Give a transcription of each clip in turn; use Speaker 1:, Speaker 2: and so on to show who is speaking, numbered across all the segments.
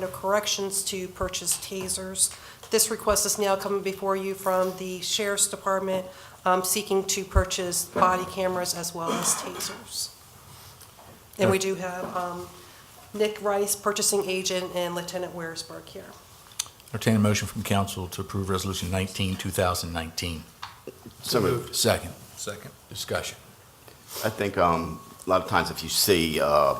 Speaker 1: No corrections to purchase tasers. This request is now coming before you from the Sheriff's Department um, seeking to purchase body cameras as well as tasers. And we do have um, Nick Rice, purchasing agent, and Lieutenant Wearsberg here.
Speaker 2: Entertain a motion from council to approve Resolution 19, 2019.
Speaker 3: So moved.
Speaker 2: Second.
Speaker 4: Second.
Speaker 2: Discussion.
Speaker 3: I think um, a lot of times if you see uh,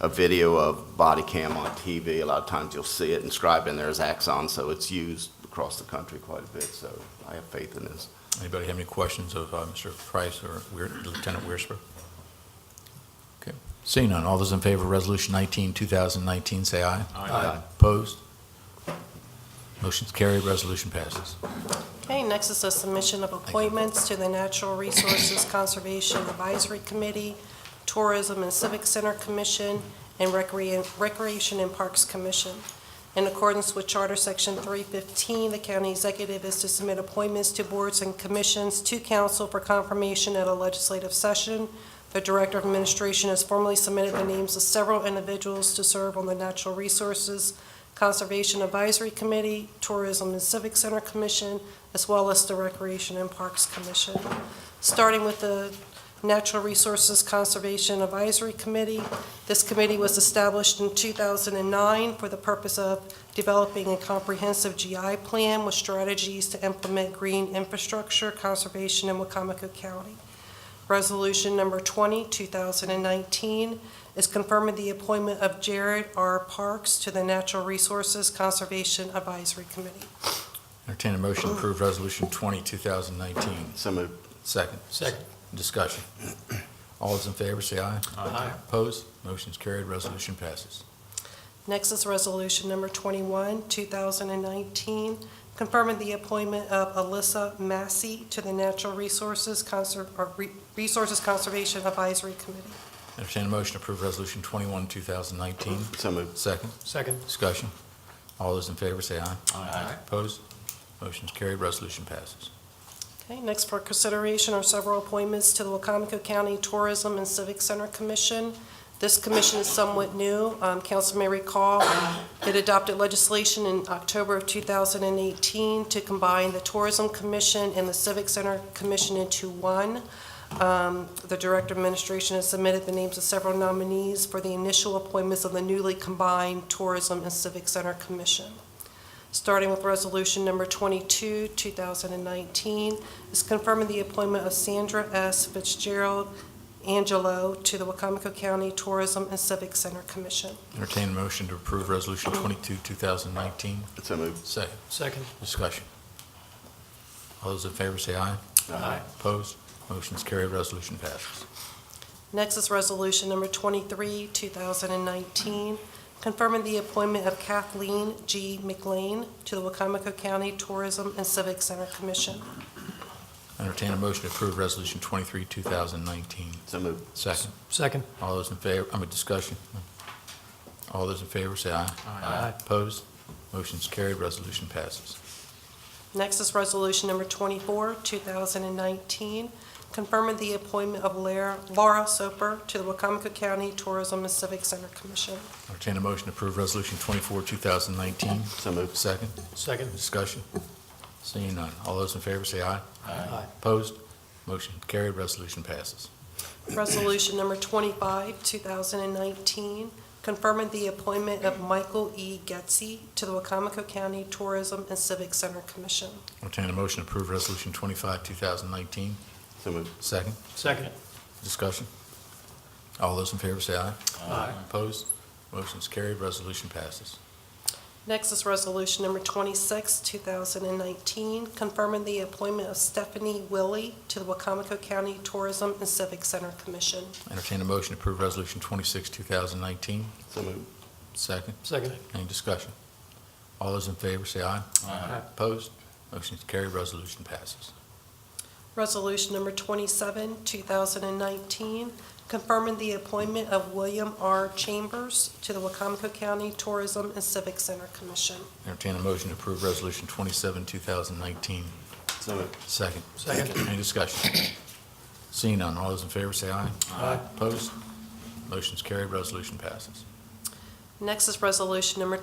Speaker 3: a video of body cam on TV, a lot of times you'll see it inscribed in there as Axon, so it's used across the country quite a bit, so I have faith in this.
Speaker 2: Anybody have any questions of uh, Mr. Price or Weir- Lieutenant Weersberg? Okay. Seeing none, all those in favor of Resolution 19, 2019, say aye.
Speaker 3: Aye.
Speaker 2: Opposed? Motion's carried, resolution passes.
Speaker 1: Okay, next is a submission of appointments to the Natural Resources Conservation Advisory Committee, Tourism and Civic Center Commission, and Recre- Recreation and Parks Commission. In accordance with Charter Section 315, the county executive is to submit appointments to boards and commissions to council for confirmation at a legislative session. The Director of Administration has formally submitted the names of several individuals to serve on the Natural Resources Conservation Advisory Committee, Tourism and Civic Center Commission, as well as the Recreation and Parks Commission. Starting with the Natural Resources Conservation Advisory Committee, this committee was established in 2009 for the purpose of developing a comprehensive GI plan with strategies to implement green infrastructure conservation in Wacomico County. Resolution number 20, 2019, is confirming the appointment of Jared R. Parks to the Natural Resources Conservation Advisory Committee.
Speaker 2: Entertain a motion to approve Resolution 20, 2019.
Speaker 3: So moved.
Speaker 2: Second.
Speaker 4: Second.
Speaker 2: Discussion. All those in favor, say aye.
Speaker 4: Aye.
Speaker 2: Opposed? Motion's carried, resolution passes.
Speaker 1: Next is Resolution Number 21, 2019, confirming the appointment of Alyssa Massey to the Natural Resources Conser- or Re- Resources Conservation Advisory Committee.
Speaker 2: Entertain a motion to approve Resolution 21, 2019.
Speaker 3: So moved.
Speaker 2: Second.
Speaker 4: Second.
Speaker 2: Discussion. All those in favor say aye.
Speaker 4: Aye.
Speaker 2: Opposed? Motion's carried, resolution passes.
Speaker 1: Okay, next for consideration are several appointments to the Wacomico County Tourism and Civic Center Commission. This commission is somewhat new. Um, Council may recall, it adopted legislation in October of 2018 to combine the Tourism Commission and the Civic Center Commission into one. Um, The Director of Administration has submitted the names of several nominees for the initial appointments of the newly combined Tourism and Civic Center Commission. Starting with Resolution Number 22, 2019, is confirming the appointment of Sandra S. Fitzgerald Angelo to the Wacomico County Tourism and Civic Center Commission.
Speaker 2: Entertain a motion to approve Resolution 22, 2019.
Speaker 3: So moved.
Speaker 2: Second.
Speaker 4: Second.
Speaker 2: Discussion. All those in favor say aye.
Speaker 4: Aye.
Speaker 2: Opposed? Motion's carried, resolution passes.
Speaker 1: Next is Resolution Number 23, 2019, confirming the appointment of Kathleen G. McLean to the Wacomico County Tourism and Civic Center Commission.
Speaker 2: Entertain a motion to approve Resolution 23, 2019.
Speaker 3: So moved.
Speaker 2: Second.
Speaker 4: Second.
Speaker 2: All those in favor, I mean, discussion. All those in favor say aye.
Speaker 4: Aye.
Speaker 2: Opposed? Motion's carried, resolution passes.
Speaker 1: Next is Resolution Number 24, 2019, confirming the appointment of Lara Laura Soper to the Wacomico County Tourism and Civic Center Commission.
Speaker 2: Entertain a motion to approve Resolution 24, 2019.
Speaker 3: So moved.
Speaker 2: Second.
Speaker 4: Second.
Speaker 2: Discussion? Seeing none. All those in favor say aye.
Speaker 4: Aye.
Speaker 2: Opposed? Motion carried, resolution passes.
Speaker 1: Resolution Number 25, 2019, confirming the appointment of Michael E. Getzey to the Wacomico County Tourism and Civic Center Commission.
Speaker 2: Entertain a motion to approve Resolution 25, 2019.
Speaker 3: So moved.
Speaker 2: Second.
Speaker 4: Second.
Speaker 2: Discussion? All those in favor say aye.
Speaker 4: Aye.
Speaker 2: Opposed? Motion's carried, resolution passes.
Speaker 1: Next is Resolution Number 26, 2019, confirming the appointment of Stephanie Willie to the Wacomico County Tourism and Civic Center Commission.
Speaker 2: Entertain a motion to approve Resolution 26, 2019.
Speaker 3: So moved.
Speaker 2: Second.
Speaker 4: Second.
Speaker 2: Any discussion? All those in favor say aye.
Speaker 4: Aye.
Speaker 2: Opposed? Motion's carried, resolution passes.
Speaker 1: Resolution number 27, 2019, confirming the appointment of William R. Chambers to the Wacomico County Tourism and Civic Center Commission.
Speaker 2: Entertain a motion to approve Resolution 27, 2019.
Speaker 3: So moved.
Speaker 2: Second.
Speaker 4: Second.
Speaker 2: Any discussion? Seeing none, all those in favor say aye.
Speaker 4: Aye.
Speaker 2: Opposed? Motion's carried, resolution passes.
Speaker 1: Next is resolution number